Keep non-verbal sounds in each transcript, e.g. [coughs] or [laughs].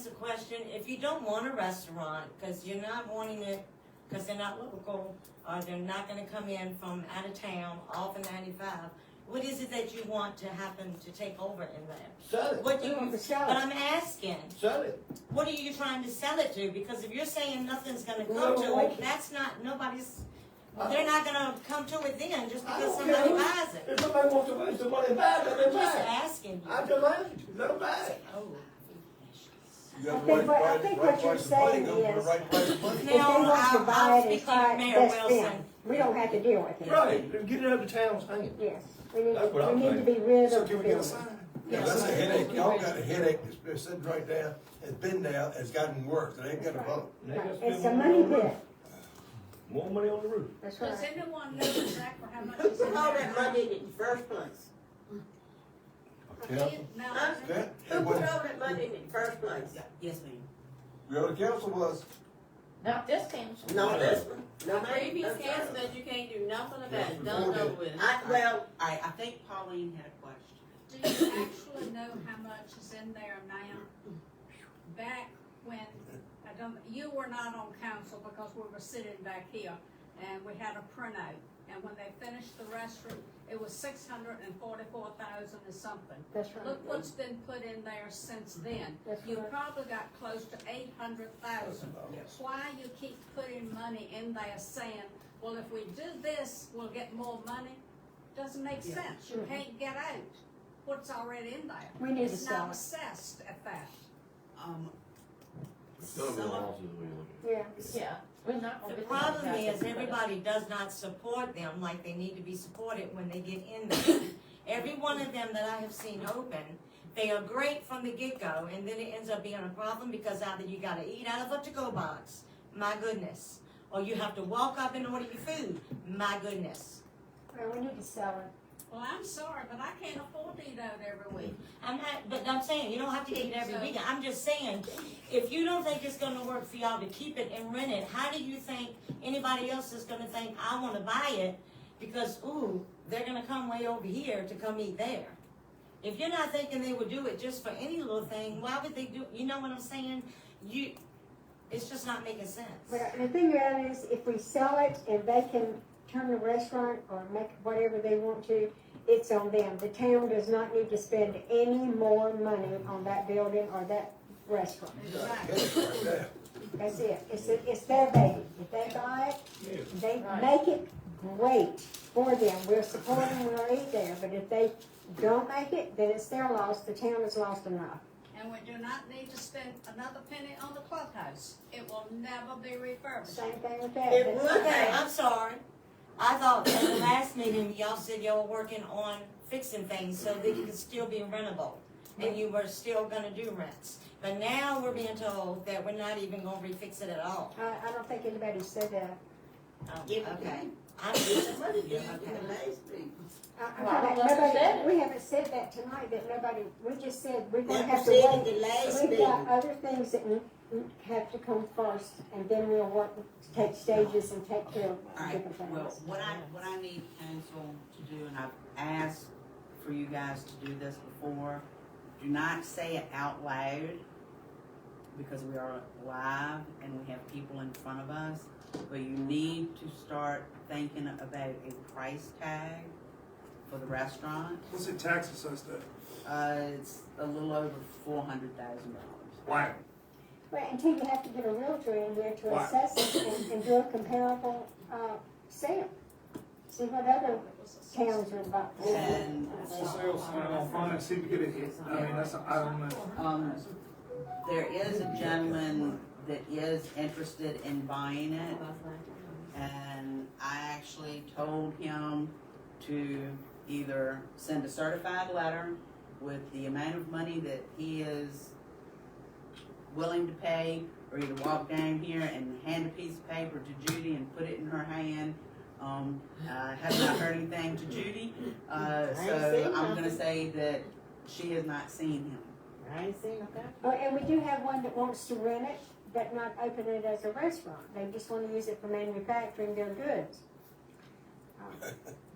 question, if you don't want a restaurant, cause you're not wanting it, cause they're not local, or they're not gonna come in from out of town, off of ninety-five, what is it that you want to happen to take over in there? Sell it. What do you, Put it on the but shelf. I'm asking, Sell it. what are you trying to sell it to? Because if you're saying nothing's gonna come Well, to okay. it, that's not, nobody's, I- they're not gonna come to it then, just I because don't care somebody who- buys it. If somebody wants to waste the money, buy it, let I'm them just buy asking it. you. I demand, let them buy it. Oh. You got I the think what- I right, think right, what right you're price of money, saying go for the is- right price of money. [laughs] If they Now, want to I'll- buy I'll it and speak to try it, Mayor that's them. Wilson. We don't have to deal with it. Right, then get it out of the town's hands. Yes, we need, That's what we I'm saying. need to be rid So of the can we get a building. sign? Yeah, that's a headache, y'all got a headache, that's been sitting right there, it's been there, it's gotten worse, it ain't gonna help. They just spend It's a more money on the roof. pit, More money on the roof. that's Does right. anyone know exactly how much is in All there? that money in the first place. Council? Now, That, Who it put all was, that money in the first place? Yes, ma'am. you know, the council was, Not this council. No, this one. No, The ma'am. previous No, sir. council that you can't do nothing about, it. Yeah, done we over with. I, well, I, I think Pauline had a question. do you actually know how much is in there now? Back when, I don't, you were not on council because we were sitting back here and we had a printout. And when they finished the restroom, it was six hundred and forty-four thousand or something. That's right. Look what's been put in there since then. That's You right. probably got close to eight hundred thousand. Yes. Why you keep putting money in there saying, well, if we do this, we'll get more money? Doesn't make Yeah. sense. You can't get out what's already in there. We need to It's not sell it. assessed at that. Um, Some of some- Yeah, Yeah, we're not The gonna. problem is, everybody does not support them like they need to be supported when they get in there. [coughs] Every one of them that I have seen open, they are great from the get-go, and then it ends up being a problem because either you gotta eat out of a to-go box, my goodness, or you have to walk up and order your food, my goodness. well, we need to sell it. Well, I'm sorry, but I can't afford to eat out every week. I'm not, but I'm saying, you don't have to eat every weekend, I'm just saying, if you don't think it's gonna work for y'all to keep it and rent it, how do you think anybody else is gonna think, I wanna buy it? Because, ooh, they're gonna come way over here to come eat there. If you're not thinking they would do it just for any little thing, why would they do, you know what I'm saying? You, it's just not making sense. But the thing about it is, if we sell it and they can turn the restaurant or make whatever they want to, it's on them. The town does not need to spend any more money on that building or that restaurant. Exactly. headache right there. That's it. It's, it's their baby. If they buy it, they make it great for them. We're supporting, we'll eat there, but if they don't make it, then it's their loss. The town has lost enough. And we do not need to spend another penny on the clubhouse. It will never be refurbished. Same thing with that. It would Okay, have. I'm sorry. I thought at the last meeting, y'all said y'all were working on fixing things so that it could still be rentable. And you were still gonna do rents. But now we're being told that we're not even gonna refix it at all. I, I don't think anybody said that. Oh, Give it Okay. back. I'm It's just, the money, you Okay. can amaze me. I- I Well, I thought that don't know who said nobody- it. We haven't said that tonight, that nobody, we just said we're gonna That have was to said in wait. the last We've got meeting. other things that we- we have to come first, and then we'll work, take stages and take care of All right, different Well, things. what I, what I need council to do, and I've asked for you guys to do this before, do not say it out loud, because we are live and we have people in front of us, but you need to start thinking about a price tag for the restaurant. What's it tax assessed at? Uh, it's a little over four hundred thousand dollars. Wow. Well, until you have to get a realtor in there to Why? assess it and, and do a comparable, uh, sale. See what other towns are about. And On sale sign on front and see if we get a hit. I mean, that's, I don't know. Um, there is a gentleman that is interested in buying it, and I actually told him to either send a certified letter with the amount of money that he is willing to pay, or either walk down here and hand a piece of paper to Judy and put it in her hand. Um, I have not heard anything to Judy, uh, I ain't so seen I'm nothing. gonna say that she has not seen him. I ain't seen nothing. Oh, and we do have one that wants to rent it, but not open it as a restaurant. They just wanna use it for manufacturing their goods. Uh,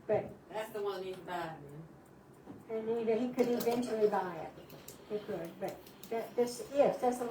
But, That's the one you can buy, man. and either he could eventually buy it, he could, but that, this, yes, that's the